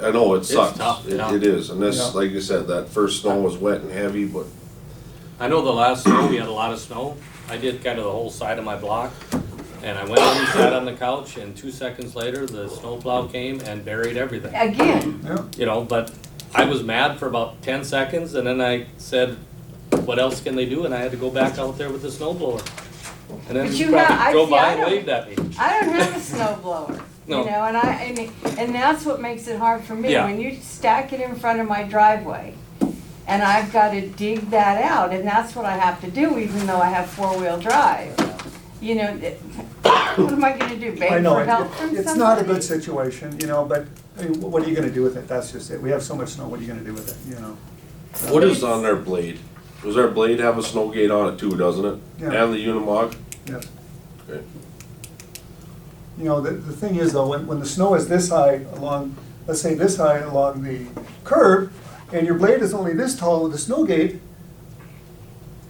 I know it It's sucks. tough, It, yeah. it is, and Yeah. this, like you said, that first snow was wet and heavy, but I know the last snow, we had a lot of snow. I did kind of the whole side of my block. And I went in, sat on the couch, and two seconds later, the snowplow came and buried everything. Again, Yeah, You know, but I was mad for about ten seconds, and then I said, what else can they do? And I had to go back out there with the snow blower. And then But he you have- I probably drove see, I by and don't- waved at me. I don't have a snow blower, you No. know, and I, and, and that's what makes it hard for me. Yeah. When you stack it in front of my driveway and I've gotta dig that out and that's what I have to do even though I have four-wheel drive. You know, it- what am I gonna do, I beg know, for it- help from somebody? it's not a good situation, you know, but, I mean, what are you gonna do with it? That's just it. We have so much snow, what are you gonna do with it, you know? what is on their blade? Does our blade have a snow gate on it too, doesn't it? Yeah. And the Unimog? Yeah. Okay. You know, the, the thing is though, when, when the snow is this high along, let's say this high along the curb, and your blade is only this tall with a snow gate,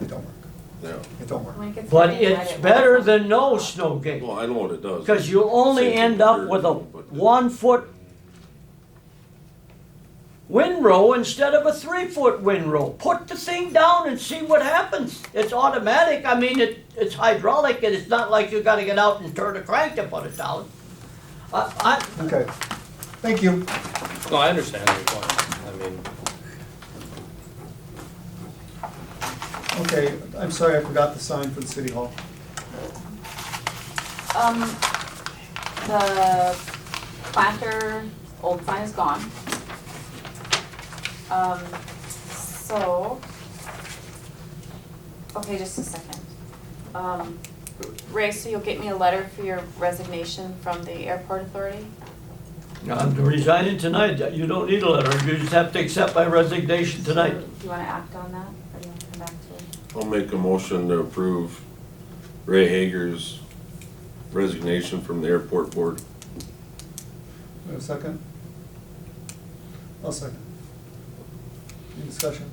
it don't work, Yeah. it don't work. But it's better than no snow gate, Well, I know what it does. because you only Safety end up with a concern, but- one-foot windrow instead of a three-foot windrow. Put the thing down and see what happens. It's automatic, I mean, it, it's hydraulic, and it's not like you gotta get out and turn a crank to put it down. I, I, Okay, thank you. No, I understand your point. I mean, Okay, I'm sorry, I forgot the sign for the city hall. Um, the planter, old sign is gone. Um, so, okay, just a second. Um, Ray, so you'll get me a letter for your resignation from the airport authority? I'm resigning tonight, you don't need a letter, you just have to accept my resignation tonight. So Do you wanna act on that, or do you wanna come back to it? I'll make a motion to approve Ray Hager's resignation from the airport board. Wait a second. I'll second. Any discussion?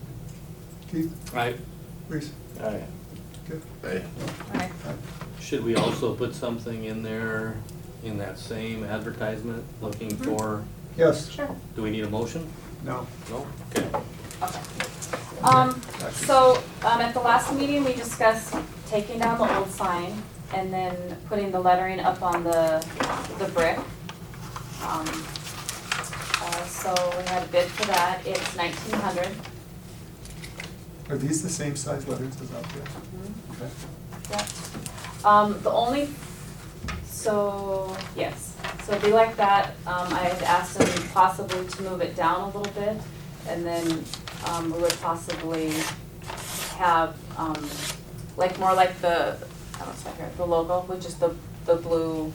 Keith, I, Reese, okay. Hey, Alright, Should we also put something in there, in that same advertisement, looking Mm-hmm. for, Yes, sure. do we need a motion? no. No? Okay. Okay. Um, so, um, at the last meeting, we discussed taking down the old sign and then putting the lettering up on the, the brick. Um, uh, so we had a bid for that, it's nineteen hundred. Are these the same size letters as up there? Okay. Yep. Um, the only, so, yes, so it'd be like that, um, I had asked them possibly to move it down a little bit, and then, um, we would possibly have, um, like, more like the, I don't know, here, the logo, with just the, the blue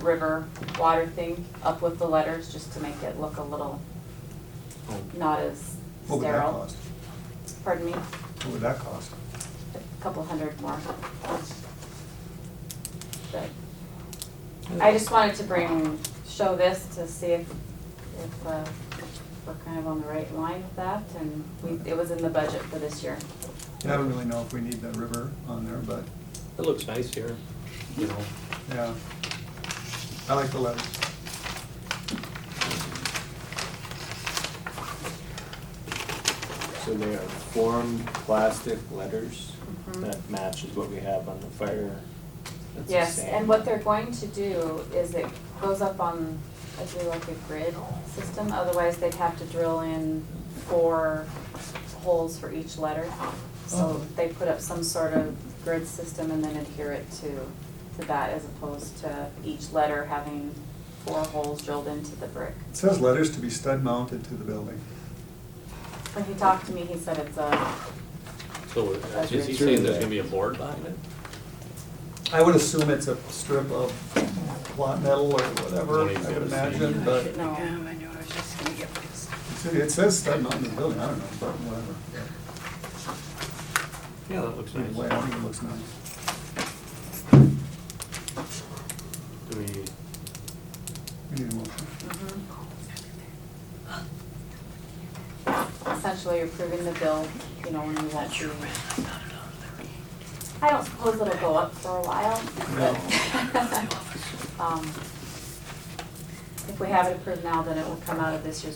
river water thing up with the letters, just to make it look a little, Oh. not as What would that sterile, cost? pardon me, What would that cost? a couple hundred more. But I just wanted to bring, show this to see if, if, uh, we're kind of on the right line with that, and we, it was in the budget for this year. Yeah, I don't really know if we need that river on there, but, It looks nice here, you know. yeah. I like the letters. So they are formed plastic letters that matches what we have on the fire. That's the Yes, same. and what they're going to do is it goes up on, I do like a grid system, otherwise they'd have to drill in four holes for each letter. So Oh. they put up some sort of grid system and then adhere it to, to that as opposed to each letter having four holes drilled into the brick. It says letters to be stud mounted to the building. When he talked to me, he said it's a, So uh, That's is he right. saying there's gonna be a board behind it? I would assume it's a strip of plot metal or whatever, Nobody's I would gonna see. imagine, but no. it's- it says stud mounted to the building, I don't know, but whatever. Yeah, that looks Either way, I think it looks nice. Do we, We need a motion. essentially you're approving the bill, you know, when we won't be. I don't suppose it'll go up for a while, but. um, If we have it approved now, then it will come out of this year's